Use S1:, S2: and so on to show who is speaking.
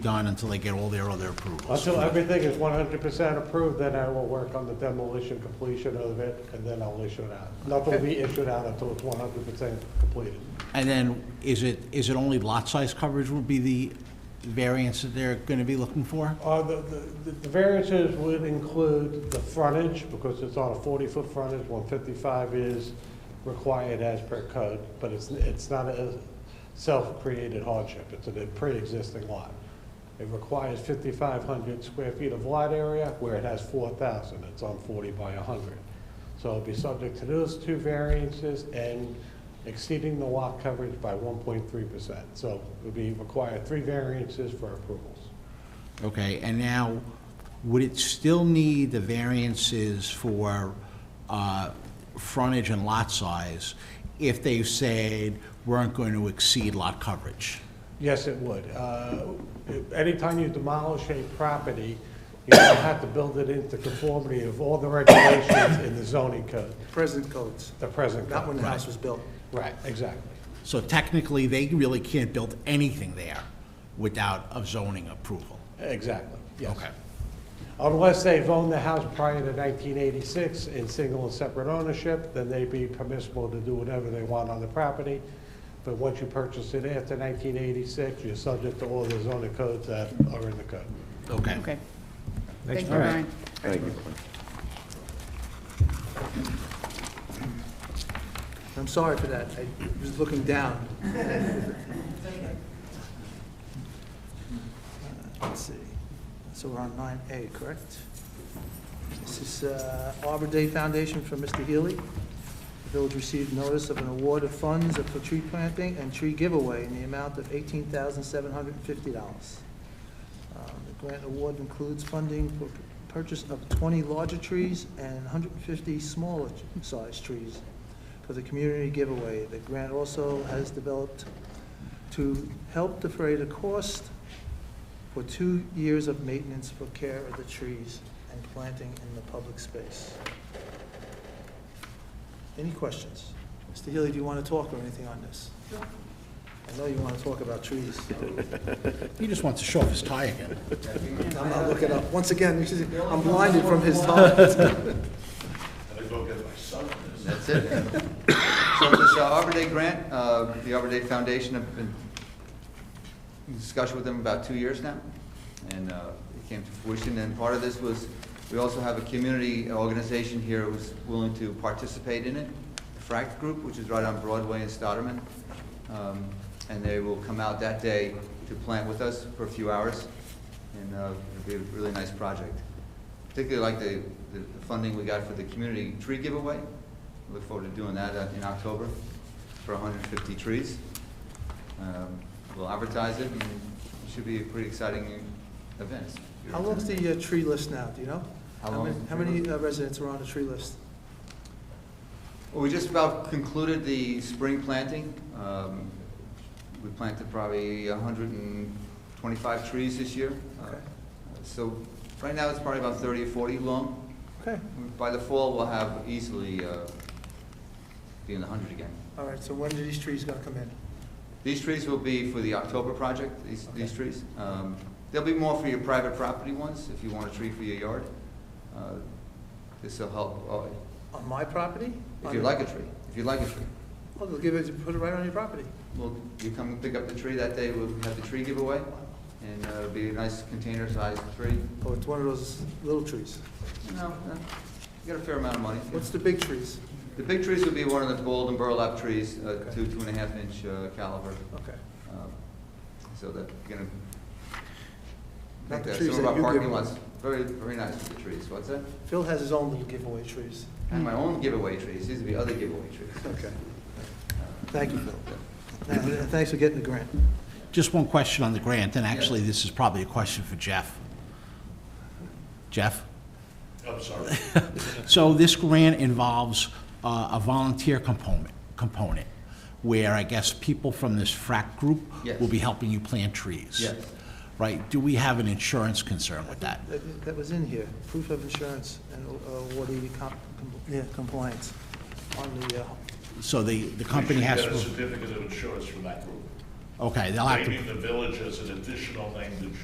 S1: done until they get all their other approvals.
S2: Until everything is one hundred percent approved, then I will work on the demolition completion of it, and then I'll issue it out. Nothing will be issued out until it's one hundred percent completed.
S1: And then, is it, is it only lot size coverage would be the variance that they're gonna be looking for?
S2: Uh, the, the, the variances would include the frontage, because it's on a forty-foot frontage, one fifty-five is required as per code, but it's, it's not a self-created hardship, it's a pre-existing lot. It requires fifty-five hundred square feet of lot area, where it has four thousand, it's on forty by hundred. So it'll be subject to those two variances and exceeding the lot coverage by one point three percent. So it would be required three variances for approvals.
S1: Okay, and now, would it still need the variances for uh, frontage and lot size if they said weren't going to exceed lot coverage?
S2: Yes, it would. Uh, Anytime you demolish a property, you don't have to build it into conformity of all the regulations in the zoning code,
S3: present codes,
S2: the present
S3: not when
S2: code.
S3: the house was built.
S2: Right, exactly.
S1: So technically, they really can't build anything there without a zoning approval.
S2: Exactly, yes.
S1: Okay.
S2: Unless they've owned the house prior to 1986 in single and separate ownership, then they'd be permissible to do whatever they want on the property. But once you purchase it after 1986, you're subject to all the zoning codes that are in the code.
S1: Okay.
S4: Okay. Thank you, Brian.
S5: Thank you.
S3: I'm sorry for that, I was looking down. Uh, Let's see, so we're on nine A, correct? This is uh, Arbor Day Foundation for Mr. Healy. The village received notice of an award of funds for tree planting and tree giveaway in the amount of eighteen thousand seven hundred and fifty dollars. Um, The grant award includes funding for purchase of twenty larger trees and hundred and fifty smaller sized trees for the community giveaway. The grant also has developed to help defray the cost for two years of maintenance for care of the trees and planting in the public space. Any questions? Mr. Healy, do you want to talk or anything on this? I know you want to talk about trees.
S1: He just wants to show off his tie again.
S3: I'm not looking up. Once again, you see, I'm blinded from his thoughts.
S5: That's it. So this uh, Arbor Day grant, uh, the Arbor Day Foundation have been in discussion with them about two years now, and uh, it came to fruition, and part of this was, we also have a community organization here who's willing to participate in it, the Fract Group, which is right on Broadway in Stotterman, Um, and they will come out that day to plant with us for a few hours, and uh, it'll be a really nice project. Particularly like the, the the funding we got for the community tree giveaway, look forward to doing that uh, in October for 150 trees. Um, We'll advertise it, and it should be a pretty exciting event.
S3: How long's the uh, tree list now, do you know?
S5: How long
S3: many-
S5: is the
S3: How
S5: tree
S3: many
S5: list?
S3: uh, residents are on the tree list?
S5: Well, we just about concluded the spring planting. Um, We planted probably 125 trees this year.
S3: Okay.
S5: Uh, So right now, it's probably about 30 or 40 long.
S3: Okay,
S5: By the fall, we'll have easily uh, be in the 100 again.
S3: all right, so when are these trees gonna come in?
S5: These trees will be for the October project, these, these trees. Um, There'll be more for your private property ones, if you want a tree for your yard. Uh, This'll help, uh,
S3: On my property?
S5: if you
S3: On-
S5: like a tree, if you like a tree.
S3: Oh, they'll give it, put it right on your property.
S5: Well, you come and pick up the tree that day, we'll have the tree giveaway, and uh, it'll be a nice container-sized tree.
S3: Oh, it's one of those little trees.
S5: You know, uh, you got a fair amount of money.
S3: What's the big trees?
S5: The big trees will be one of the bold and burlap trees, uh, two, two and a half inch uh, caliber.
S3: Okay.
S5: Um, So that, you're gonna.
S3: Not the
S5: Like
S3: trees
S5: Some of
S3: that
S5: our
S3: you
S5: parking
S3: give Hmm.
S5: lots, very, very nice with the trees, what's that?
S3: Phil has his own little giveaway trees.
S5: And my own giveaway trees, these would be other giveaway trees.
S3: Okay. Thank you, Phil. Now, uh, Thanks for getting the grant.
S1: Just one question on the grant, and actually, this is probably a question for Jeff. Jeff? I'm sorry. So this grant involves uh, a volunteer component, component, where I guess people from this frac group
S5: Yes.
S1: will be helping you plant trees.
S5: Yes.
S1: Right, do we have an insurance concern with that?
S3: That that was in here, proof of insurance and uh, water com- com- yeah, compliance on the, uh,
S1: So the, the company has,
S6: You should get a
S1: to.
S6: certificate of insurance from that group.
S1: okay, they'll have to
S6: Naming the village as an additional name to